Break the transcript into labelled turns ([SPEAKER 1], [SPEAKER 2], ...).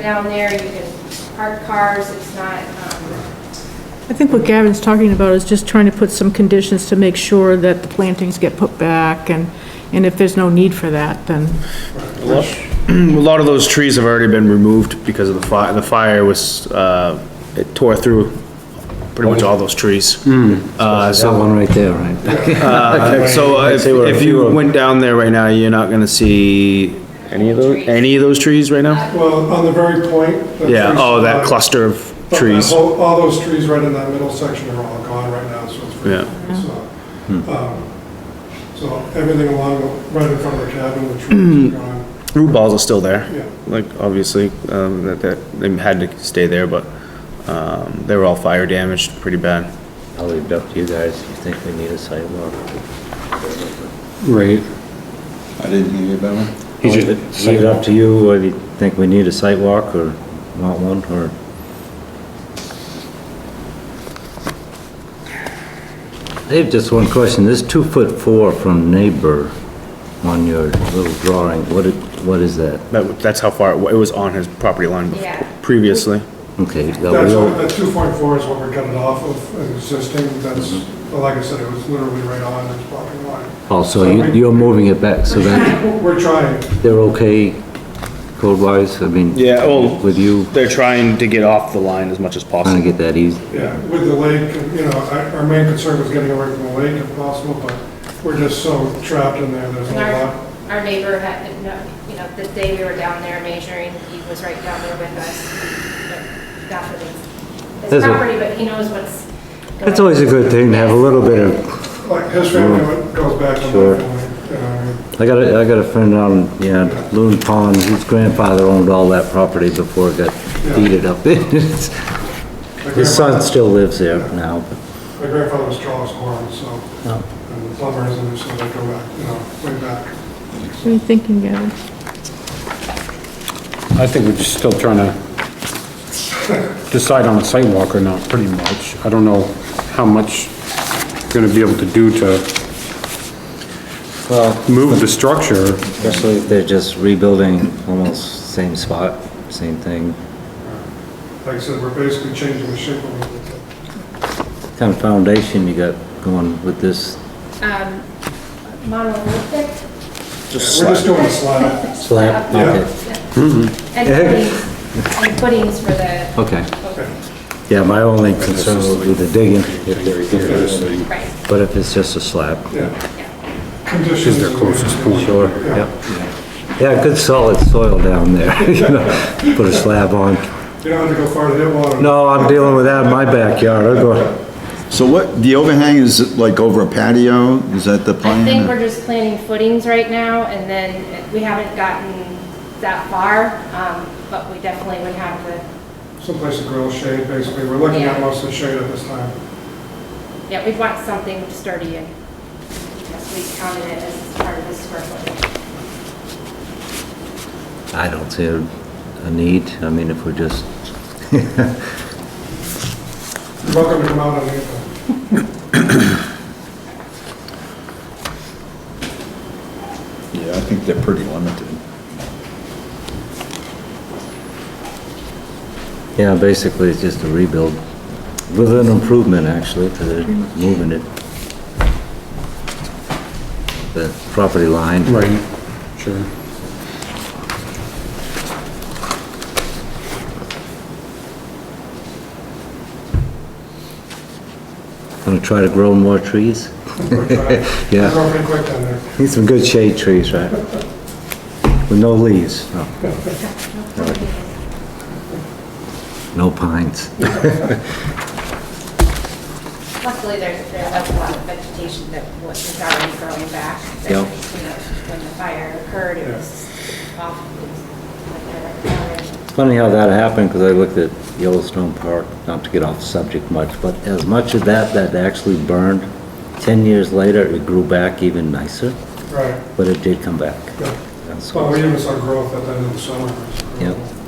[SPEAKER 1] down there, you can park cars, it's not, um,
[SPEAKER 2] I think what Gavin's talking about is just trying to put some conditions to make sure that the plantings get put back, and, and if there's no need for that, then,
[SPEAKER 3] A lot- a lot of those trees have already been removed because of the fire, the fire was, uh, it tore through pretty much all those trees.
[SPEAKER 4] Hmm.
[SPEAKER 3] Uh,
[SPEAKER 4] That
[SPEAKER 3] so,
[SPEAKER 4] one right there, right?
[SPEAKER 3] uh, so if,
[SPEAKER 4] say we're a
[SPEAKER 3] if
[SPEAKER 4] few
[SPEAKER 3] you
[SPEAKER 4] of-
[SPEAKER 3] went down there right now, you're not gonna see any of those, any of those trees right now?
[SPEAKER 5] Well, on the very point. the
[SPEAKER 3] Yeah,
[SPEAKER 5] trees-
[SPEAKER 3] oh, that cluster of
[SPEAKER 5] but that
[SPEAKER 3] trees,
[SPEAKER 5] whole- All those trees right in that middle section are all gone right now, so it's.
[SPEAKER 3] Yeah.
[SPEAKER 1] Mm-hmm.
[SPEAKER 5] So, um, so everything along, the- right in front of the cabin, the
[SPEAKER 3] Mm-hmm.
[SPEAKER 5] trees are gone.
[SPEAKER 3] root balls are still there.
[SPEAKER 5] Yeah.
[SPEAKER 3] Like, obviously, um, that, that, they had to stay there, but, um, they were all fire damaged pretty bad.
[SPEAKER 6] I'll leave it up to you guys, if you think we need a sidewalk.
[SPEAKER 4] Right.
[SPEAKER 7] I didn't hear you, Bama.
[SPEAKER 6] I'll Leave it- leave it up to you, whether you think we need a sidewalk or not one, or I have just one question, this two foot four from neighbor on your little drawing, what, it- what is that?
[SPEAKER 3] That, that's how far, it wa- it was on his property line bef-
[SPEAKER 1] Yeah.
[SPEAKER 3] previously.
[SPEAKER 6] Okay, you got
[SPEAKER 5] That's, what-
[SPEAKER 6] real,
[SPEAKER 5] that two point four is what we're cutting off of an existing, that's,
[SPEAKER 3] Mm-hmm.
[SPEAKER 5] well, like I said, it was literally right on this property line.
[SPEAKER 6] oh, so you, you're moving it back, so that,
[SPEAKER 5] We're trying,
[SPEAKER 6] they're okay code-wise, I mean.
[SPEAKER 3] Yeah, well-
[SPEAKER 6] With you,
[SPEAKER 3] They're trying to get off the line as much as
[SPEAKER 6] trying to
[SPEAKER 3] possible.
[SPEAKER 6] get that easy,
[SPEAKER 5] yeah, with the lake, you know, our, our main concern was getting away from the lake if possible, but we're just so trapped in there, there's
[SPEAKER 1] and
[SPEAKER 5] not a lot.
[SPEAKER 1] our, our neighbor had, no, you know, the day we were down there measuring, he was right down there with us. Not for his, his
[SPEAKER 6] That's a-
[SPEAKER 1] property, but he knows what's.
[SPEAKER 6] that's always a good thing to have a little bit of
[SPEAKER 5] Like, his family goes back to my
[SPEAKER 6] Mm. Sure.
[SPEAKER 5] family, uh, you know,
[SPEAKER 6] I got a, I got a friend on, yeah, Loon Pond, whose grandfather owned all that property before it got deeded up.
[SPEAKER 5] my
[SPEAKER 6] His son
[SPEAKER 5] grandfather-
[SPEAKER 6] still lives there now,
[SPEAKER 5] My grandfather was Charles Horn, so,
[SPEAKER 6] Oh.
[SPEAKER 5] and the plumbers, and so they go back, you know, way back.
[SPEAKER 2] what are you thinking, Gavin?
[SPEAKER 8] I think we're just still trying to decide on a sidewalk or not, pretty much. I don't know how much we're gonna be able to do to
[SPEAKER 6] but
[SPEAKER 8] move the structure.
[SPEAKER 6] especially if they're just rebuilding almost same spot, same thing.
[SPEAKER 5] Like I said, we're basically changing the shape of it.
[SPEAKER 6] Kind of foundation you got going with this
[SPEAKER 1] Um, monolithic.
[SPEAKER 3] Just
[SPEAKER 5] We're
[SPEAKER 3] slide.
[SPEAKER 5] just doing a slab.
[SPEAKER 6] slab? Okay.
[SPEAKER 1] And footings, and footings for the,
[SPEAKER 6] Okay. Yeah, my only concern would be the digging, if they're,
[SPEAKER 1] right,
[SPEAKER 6] but if it's just a slab.
[SPEAKER 5] yeah.
[SPEAKER 8] Is
[SPEAKER 5] Conditions.
[SPEAKER 8] their closest point.
[SPEAKER 6] Sure, yep. Yeah, good solid soil down there, you know, put a slab on.
[SPEAKER 5] You don't have to go far to hit water.
[SPEAKER 6] No, I'm dealing with that in my backyard, I'll go.
[SPEAKER 7] So what, the overhang is like over a patio? Is that the plan?
[SPEAKER 1] I think we're just planning footings right now, and then we haven't gotten that far, um, but we definitely would have the,
[SPEAKER 5] Someplace to grill shade, basically. We're looking
[SPEAKER 1] Yeah.
[SPEAKER 5] at most of the shade at this time.
[SPEAKER 1] yeah, we'd want something sturdy and, because we counted it as part of the square footage.
[SPEAKER 6] I don't see a a need, I mean, if we're just,
[SPEAKER 5] You're welcome to come out on anything.
[SPEAKER 7] Yeah, I think they're pretty limited.
[SPEAKER 6] yeah, basically, it's just a rebuild with an improvement, actually, because they're moving it. The property line.
[SPEAKER 8] Right, sure.
[SPEAKER 6] Gonna try to grow more trees?
[SPEAKER 5] We're trying.
[SPEAKER 6] Yeah.
[SPEAKER 5] We're going pretty quick down there.
[SPEAKER 6] Need some good shade trees, right? With no leaves, no. No pines.
[SPEAKER 1] Luckily, there's, there's a lot of vegetation that was already growing back.
[SPEAKER 6] Yep.
[SPEAKER 1] You know, When the fire occurred, it was off, it was like there were others.
[SPEAKER 6] Funny how that happened, because I looked at Yellowstone Park, not to get off subject much, but as much of that that actually burned, 10 years later, it grew back even nicer,
[SPEAKER 5] Right.
[SPEAKER 6] but it did come back.
[SPEAKER 5] Yeah.
[SPEAKER 6] That's-
[SPEAKER 5] Well, we even saw growth at the end of the summer. It was
[SPEAKER 6] Yep.
[SPEAKER 5] incredible.